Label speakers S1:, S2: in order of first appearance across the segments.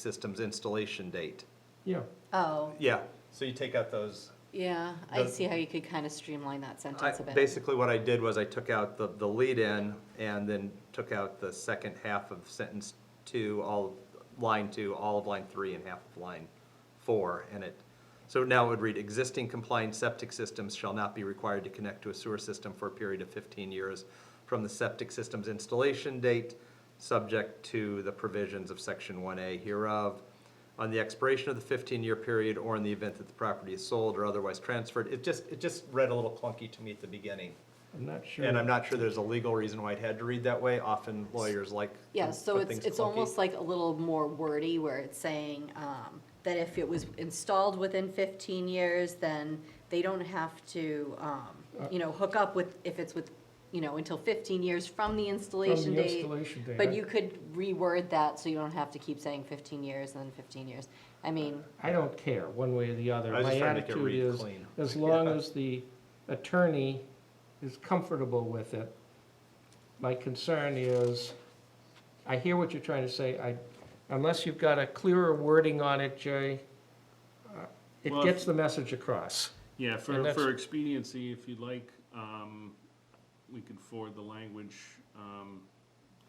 S1: system's installation date.
S2: Yeah,
S3: Oh,
S1: Yeah, so you take out those.
S3: yeah, I
S1: The-
S3: see how you could kind of streamline that
S1: I-
S3: sentence a bit.
S1: Basically, what I did was I took out the, the lead-in and then took out the second half of sentence two, all, of line two, all of line three and half of line four, and it, so now it would read, existing compliant septic systems shall not be required to connect to a sewer system for a period of fifteen years from the septic system's installation date, subject to the provisions of section one A hereof. On the expiration of the fifteen-year period, or in the event that the property is sold or otherwise transferred, it just, it just read a little clunky to me at the beginning.
S2: I'm not sure.
S1: And I'm not sure there's a legal reason why it had to read that way, often lawyers like. to
S3: Yeah, so
S1: put
S3: it's,
S1: things
S3: it's
S1: clunky.
S3: almost like a little more wordy where it's saying, um, that if it was installed within fifteen years, then they don't have to, um, you know, hook up with, if it's with, you know, until fifteen years from the installation
S2: From the
S3: date.
S2: installation date. I-
S3: But you could reword that so you don't have to keep saying fifteen years and then fifteen years. I mean,
S2: I don't care, one way or the other.
S1: I was
S2: My
S1: just trying to make it
S2: attitude
S1: read
S2: is,
S1: clean.
S2: as long
S1: Yeah.
S2: as the attorney is comfortable with it, my concern is, I hear what you're trying to say, I, unless you've got a clearer wording on it, Jay, uh, it
S4: Well, if-
S2: gets the message across.
S4: Yeah,
S2: And
S4: for,
S2: that's-
S4: for expediency, if you'd like, um, we could forward the language, um,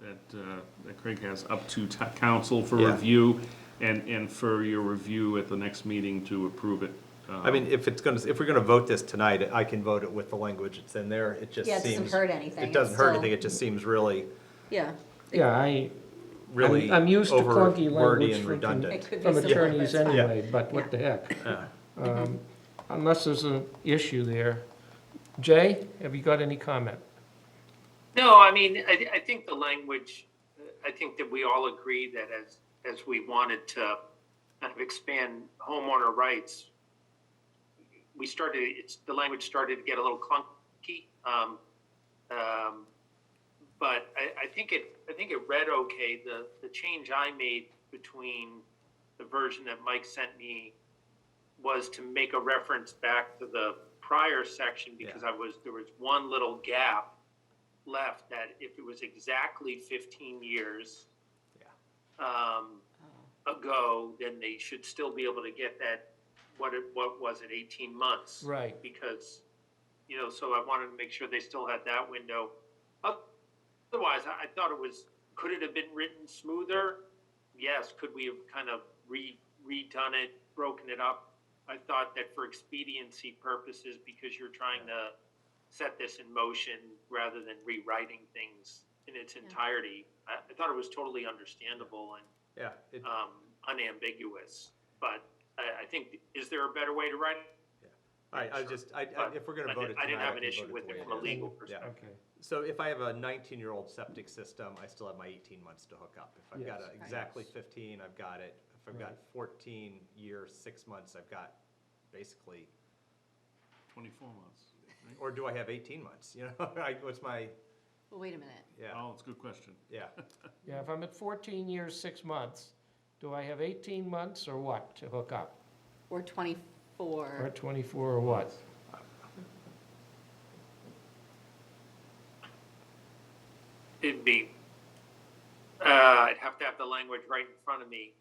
S4: that, uh, that Craig has up to t- council for
S1: Yeah.
S4: review and, and for your review at the next meeting to approve it.
S1: I mean, if it's gonna, if we're gonna vote this tonight, I can vote it with the language that's in there, it just
S3: yeah, it
S1: seems.
S3: doesn't hurt anything.
S1: It
S3: It's
S1: doesn't hurt
S3: still-
S1: anything, it just seems really,
S3: Yeah,
S2: Yeah, I,
S1: really
S2: I'm used to
S1: over wordy
S2: clunky language
S1: and
S2: from-
S1: redundant.
S3: it could be
S2: from
S3: simple, but
S2: attorneys
S3: it's fine.
S2: anyway, but what the heck.
S1: Yeah.
S2: Um, Unless there's an issue there. Jay, have you got any comment?
S5: No, I mean, I, I think the language, I think that we all agree that as, as we wanted to kind of expand homeowner rights, we started, it's, the language started to get a little clunky. Um, um, but I, I think it, I think it read okay. The, the change I made between the version that Mike sent me was to make a reference back to the prior section because I was, there was one little gap left that if it was exactly 15 years um, ago, then they should still be able to get that, what it, what was it, 18 months?
S2: Right.
S5: Because, you know, so I wanted to make sure they still had that window. Otherwise, I, I thought it was, could it have been written smoother? Yes, could we have kind of re, redone it, broken it up? I thought that for expediency purposes, because you're trying to set this in motion rather than rewriting things in its entirety. I, I thought it was totally understandable and
S1: Yeah, it-
S5: um, unambiguous. But I, I think, is there a better way to write it?
S1: I, I just, I, I- if we're gonna
S5: I
S1: vote it
S5: didn't-
S1: tonight.
S5: I didn't have
S1: can
S5: an issue
S1: vote
S5: with
S1: the
S5: it
S1: way
S5: from a
S1: is.
S5: legal
S1: Yeah.
S5: perspective.
S2: Okay.
S1: So if I have a nineteen-year-old septic system, I still have my eighteen months to hook up. If I've got
S2: Yes.
S1: a exactly fifteen, I've got it. If I've got
S2: Right.
S1: fourteen year, six months, I've got basically,
S4: Twenty-four months,
S1: or do I have eighteen months? You know, like, what's my,
S3: Well, wait a minute.
S4: right?
S1: yeah,
S4: Oh, it's a good question.
S1: yeah.
S2: Yeah, if I'm at 14 years, six months, do I have 18 months or what to hook up?
S3: Or
S2: Or
S3: twenty-four,
S2: 24 or what?
S5: It'd be, uh, I'd have to have the language right in front of me.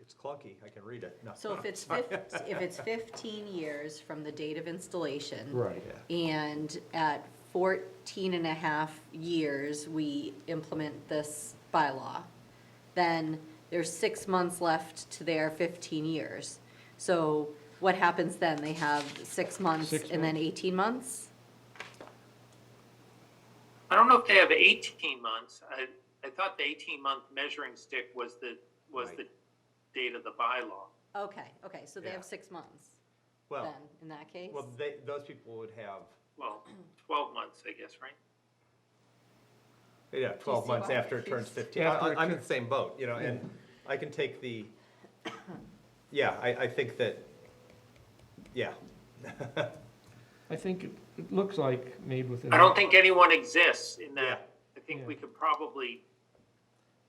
S1: It's clunky. I can read it. No.
S3: so if it's fif, if it's fifteen years from the date of installation.
S2: Right.
S1: Yeah.
S3: And at 14 and a half years, we implement this bylaw, then there's six months left to their 15 years. So what happens then? They have six months
S2: Six
S3: and then 18 months?
S5: I don't know if they have eighteen months. I, I thought the eighteen month measuring stick was the, was the
S1: Right.
S5: date of the bylaw.
S3: Okay, okay, so they
S1: Yeah.
S3: have six months then,
S1: Well,
S3: in that case?
S1: well, they, those people would have,
S5: Well, twelve months, I guess, right?
S1: yeah, twelve
S3: see
S1: months
S3: why?
S1: after it turns
S3: He's-
S1: fifteen. I-
S2: After
S1: I-
S2: it
S1: I'm in
S2: tur-
S1: the same boat, you know, and I can take the, yeah, I, I think that, yeah.
S2: I think it- it looks like made within.
S5: I don't think anyone exists in that. I think we
S2: Yeah.
S5: could probably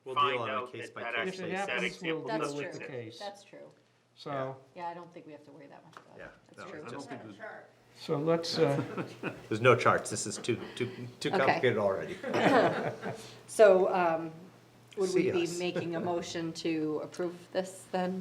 S1: We'll deal
S5: find
S1: on a
S5: out
S1: case
S5: that
S1: by
S5: that
S1: case
S2: If it
S5: actually, that
S2: happens, we'll
S5: example
S3: That's
S2: deal
S5: doesn't
S2: with the
S3: true,
S2: case.
S5: exist.
S3: that's true.
S2: So,
S3: Yeah, I don't think we have to worry that much about
S1: Yeah,
S3: it. That's
S1: no,
S3: true.
S1: it's
S4: I don't think that-
S2: so let's, uh,
S1: There's no charts. This is too, too, too
S3: Okay.
S1: complicated already.
S3: So, um, Would we
S1: see
S3: be
S1: us.
S3: making a motion to approve this then?